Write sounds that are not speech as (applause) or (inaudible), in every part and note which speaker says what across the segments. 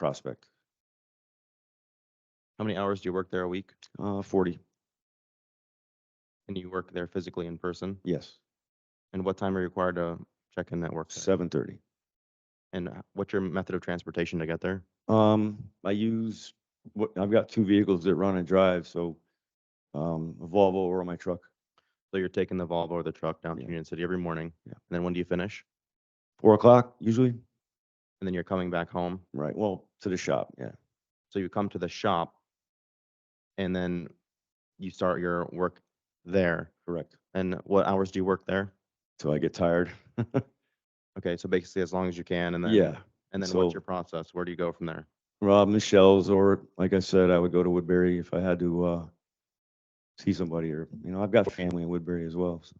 Speaker 1: Prospect,
Speaker 2: How many hours do you work there a week?
Speaker 1: uh, forty,
Speaker 2: And you work there physically in person?
Speaker 1: yes,
Speaker 2: And what time are you required to check in that work? site?
Speaker 1: seven thirty.
Speaker 2: And uh, what's your method of transportation to get there?
Speaker 1: Um, I use, what, I've got two vehicles that run and drive, so, um, a Volvo or my truck,
Speaker 2: So you're taking the Volvo or the truck down to
Speaker 1: Yeah.
Speaker 2: Union City every morning?
Speaker 1: Yeah.
Speaker 2: And then when do you finish?
Speaker 1: four o'clock usually,
Speaker 2: And then you're coming back home?
Speaker 1: right, well, to the shop, yeah.
Speaker 2: So you come to the shop and then you start your work there.
Speaker 1: Correct.
Speaker 2: And what hours do you work there?
Speaker 1: Till I get (laughs) tired.
Speaker 2: Okay, so basically as long as you can and then.
Speaker 1: Yeah.
Speaker 2: And then
Speaker 1: so-
Speaker 2: what's your process? Where do you go from there?
Speaker 1: Rob Michelle's, or like I said, I would go to Woodbury if I had to, uh, see somebody or, you know, I've got family in Woodbury as well. so-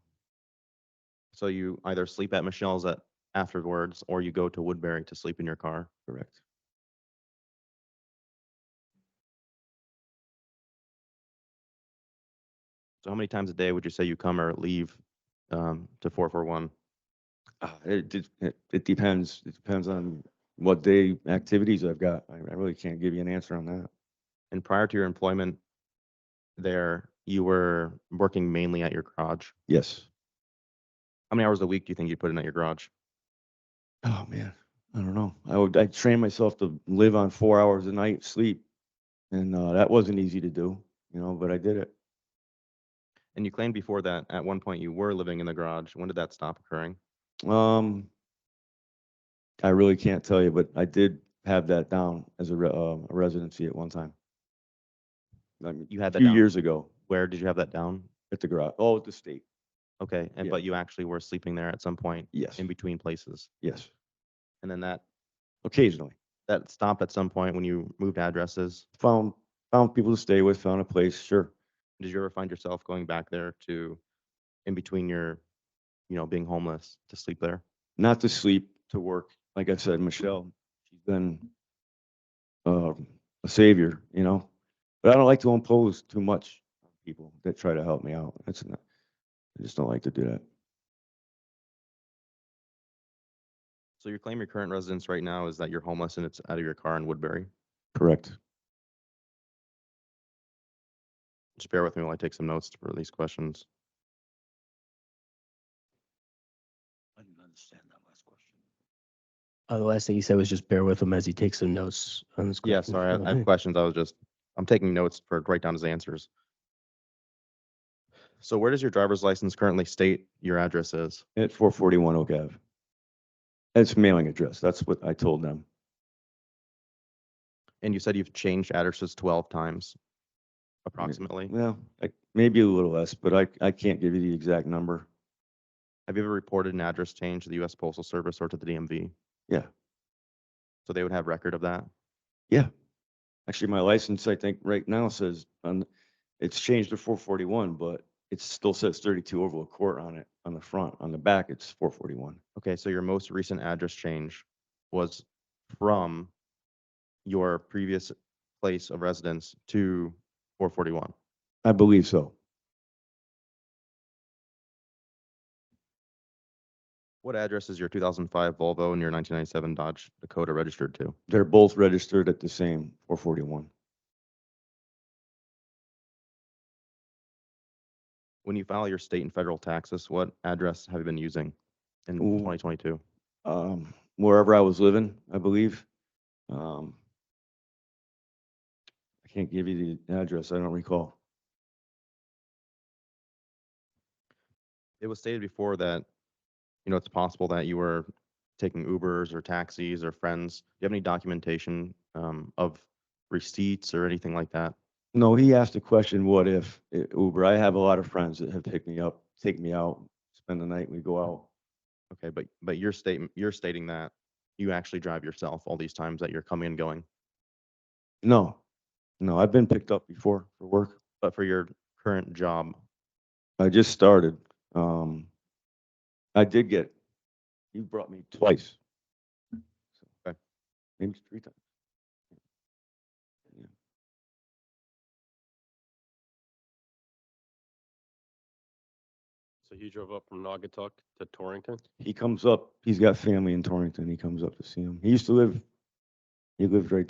Speaker 2: So you either sleep at Michelle's at afterwards or you go to Woodbury to sleep in your car?
Speaker 1: Correct.
Speaker 2: So how many times a day would you say you come or leave um, to 441?
Speaker 1: Ah, It, de- it, it depends. It depends on what day activities I've got. I, I really can't give you an answer on that.
Speaker 2: And prior to your employment there, you were working mainly at your garage.
Speaker 1: Yes.
Speaker 2: How many hours a week do you think you put in at your garage?
Speaker 1: Oh, man. I don't know. I would, I trained myself to live on four hours a night sleep. And, uh, that wasn't easy to do, you know, but I did it.
Speaker 2: And you claimed before that at one point you were living in the garage. When did that stop occurring?
Speaker 1: Um, I really can't tell you, but I did have that down as a, re- um, a residency at one time. I mean,
Speaker 2: You
Speaker 1: a
Speaker 2: had that
Speaker 1: few
Speaker 2: down.
Speaker 1: years ago
Speaker 2: Where did you have that down?
Speaker 1: at the garage, oh, at the state.
Speaker 2: Okay, and
Speaker 1: Yeah.
Speaker 2: but you actually were sleeping there at some point
Speaker 1: Yes,
Speaker 2: in between places.
Speaker 1: yes,
Speaker 2: And then that
Speaker 1: occasionally.
Speaker 2: that stopped at some point when you moved addresses.
Speaker 1: Found, found people to stay with, found a place, sure.
Speaker 2: Did you ever find yourself going back there to in between your, you know, being homeless to sleep there?
Speaker 1: Not to sleep, to work. Like I said, Michelle, she's been, um, a savior, you know? But I don't like to impose too much on people that try to help me out. That's not, I just don't like to do that.
Speaker 2: So your claim your current residence right now is that you're homeless and it's out of your car in Woodbury.
Speaker 1: Correct.
Speaker 2: Just bear with me while I take some notes for these questions.
Speaker 3: I didn't understand that last question.
Speaker 4: Uh, the last thing he said was just bear with him as he takes some notes on this.
Speaker 2: (laughs) Yeah,
Speaker 4: question.
Speaker 2: sorry, I- I have
Speaker 4: Okay.
Speaker 2: questions. I was just, I'm taking notes for, write down his answers. So where does your driver's license currently state your address is?
Speaker 1: At four forty-one Oak Ave. It's mailing address. That's what I told them.
Speaker 2: And you said you've changed addresses twelve times approximately.
Speaker 1: Well, I- maybe a little less, but I, I can't give you the exact number.
Speaker 2: Have you ever reported an address change to the US Postal Service or to the DMV?
Speaker 1: Yeah.
Speaker 2: So they would have record of that?
Speaker 1: Actually, my license, I think, right now says, on, it's changed to four forty-one, but it still says thirty-two Oval Court on it, on the front. On the back, it's four forty-one.
Speaker 2: Okay, so your most recent address change was from your previous place of residence to four forty-one.
Speaker 1: I believe so.
Speaker 2: What address is your two thousand five Volvo and your nineteen ninety-seven Dodge Dakota registered to?
Speaker 1: They're both registered at the same four forty-one.
Speaker 2: When you file your state and federal taxes, what address have you been using in
Speaker 1: Ooh.
Speaker 2: twenty twenty-two?
Speaker 1: Um, wherever I was living, I believe. Um, I can't give you the address. I don't recall.
Speaker 2: It was stated before that, you know, it's possible that you were taking Ubers or taxis or friends. Do you have any documentation um, of receipts or anything like that?
Speaker 1: No, he asked the question, what if uh, Uber? I have a lot of friends that have picked me up, take me out, spend the night, we go out.
Speaker 2: Okay, but, but your statement, you're stating that you actually drive yourself all these times that you're coming and going.
Speaker 1: No, no, I've been picked up before for work.
Speaker 2: But for your current job,
Speaker 1: I just started. Um, I did get, you brought me twice.
Speaker 2: Okay.
Speaker 1: Maybe three times.
Speaker 3: So he drove up from Naugatuck to Torrington?
Speaker 1: He comes up, he's got family in Torrington. He comes up to see him. He used to live, he lived right